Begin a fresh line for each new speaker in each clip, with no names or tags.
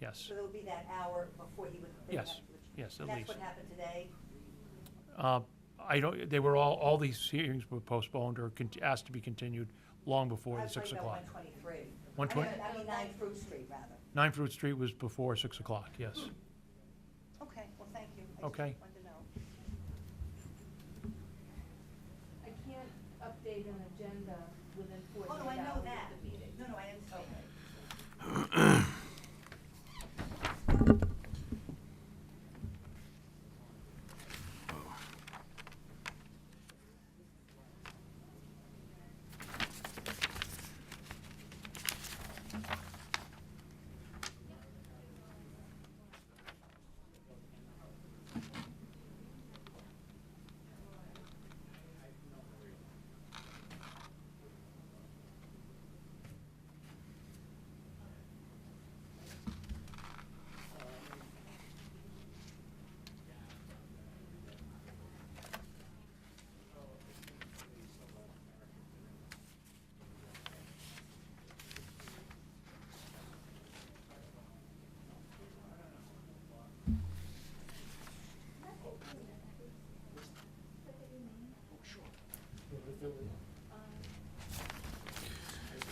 yes.
So there would be that hour before he would. bring
Yes,
that, which-
yes, at
and
least.
That's what happened today.
Uh, I don't, they were all, all these hearings were postponed or cont- asked to be continued long before the 6 o'clock.
I was talking about 123.
One twen-
I mean- I mean, 9 Fruit Street, rather.
9 Fruit Street was before 6 o'clock, yes.
Okay, well, thank you. I just
Okay.
wanted to know.
I can't update an agenda within
Oh, no, I
forty-eight hours
know
of
that.
the meeting.
No, no, I understand.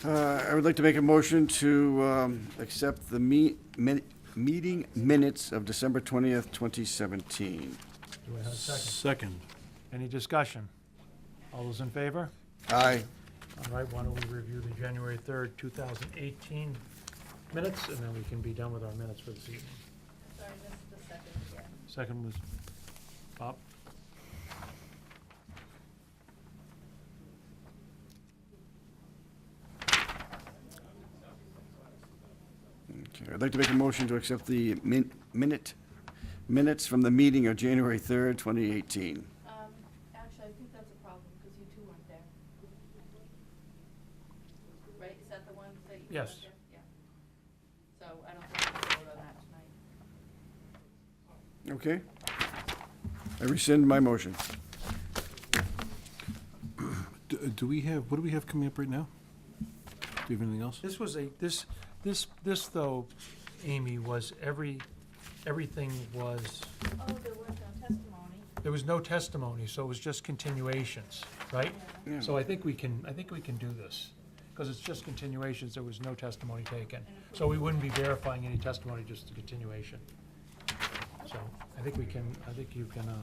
Uh, I would like to make a motion to um, accept the me- min- meeting minutes of December 20th, 2017.
Do I have a second?
Second.
Any discussion? All those in favor?
Aye.
All right, why don't we review the January 3rd, 2018 minutes, and then we can be done with our minutes for this evening.
Sorry, missed the second again.
Second was Bob.
Okay, I'd like to make a motion to accept the min- minute, minutes from the meeting of January 3rd, 2018.
Um, actually, I think that's a problem, because you two weren't there. Right, is that the one that you
Yes.
weren't there? Yes. Yeah. So I don't think we can vote on that tonight.
Okay? I rescind my motion.
D- uh, Do we have, what do we have coming up right now? Do you have anything else?
This was a, this, this, this though, Amy, was every, everything was,
Oh, there was no testimony.
there was no testimony, so it was just continuations, right?
Yeah.
So I think we can, I think we can do this, because it's just continuations, there was no testimony taken. So we wouldn't be verifying any testimony, just the continuation. So I think we can, I think you can uh,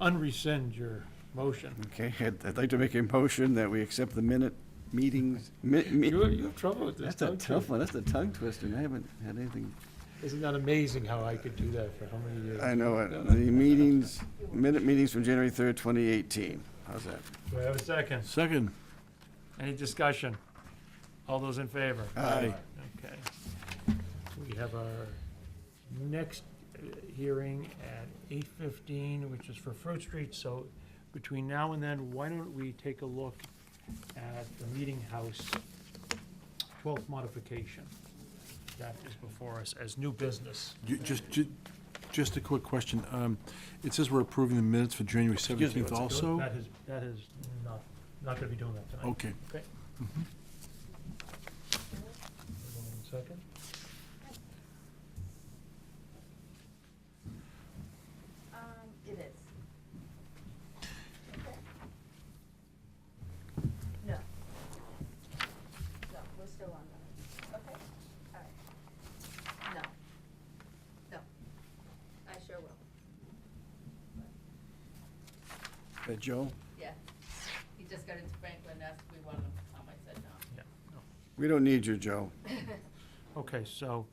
unrescind your motion.
Okay, I'd I'd like to make a motion that we accept the minute meetings. mi- mi-
You you have trouble with this,
That's a
don't
tough
you?
one, that's a tongue twister, and I haven't had anything.
Isn't that amazing how I could do that for how many years?
I know, it. the meetings, minute meetings from January 3rd, 2018. How's that?
Do I have a second?
Second.
Any discussion? All those in favor?
Aye.
Okay. We have our next uh, hearing at eight fifteen, which is for Fruit Street, so between now and then, why don't we take a look at the Meeting House twelfth modification? That is before us as new business.
Ju- Just, ju- just a quick question. Um, It says we're approving the minutes for January 17th also?
That is, that is not, not gonna be doing that tonight.
Okay.
Okay. Hold on one second.
Um,
It is. No.
no, we're still on that. Okay, all right. No. No. I sure will.
Uh, Joe,
Yeah. He just got into Franklin, asked if we wanted him to come, I said no.
Yeah, no.
we don't need you, Joe.
Okay, so,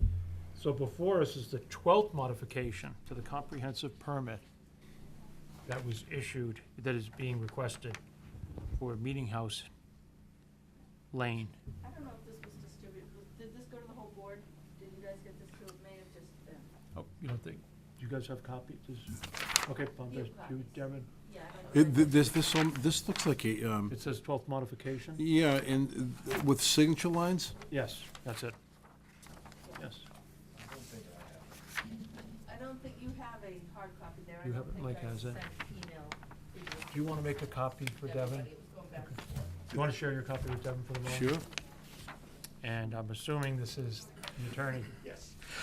so before us is the twelfth modification to the comprehensive permit that was issued, that is being requested for Meeting House Lane.
I don't know if this was distributed, Was- did this go to the whole board? Did you guys get this to, it may have just been,
Oh, you don't think, do you guys have copies? Okay, Bob,
Few
there's you,
copies.
Devin.
yeah, I don't know.
It- th- This, this, um, this looks like a, um,
It says twelfth modification?
yeah, and uh, with signature lines?
Yes, that's it. Yes.
I don't think you have a hard copy there. I
You
don't
haven't,
think
like,
I
has it?
sent Email to you.
Do you want to make a copy for Devin?
Everybody was going back and forth.
Do you want to share your copy with Devin for the moment?
Sure.
And I'm assuming this is the attorney.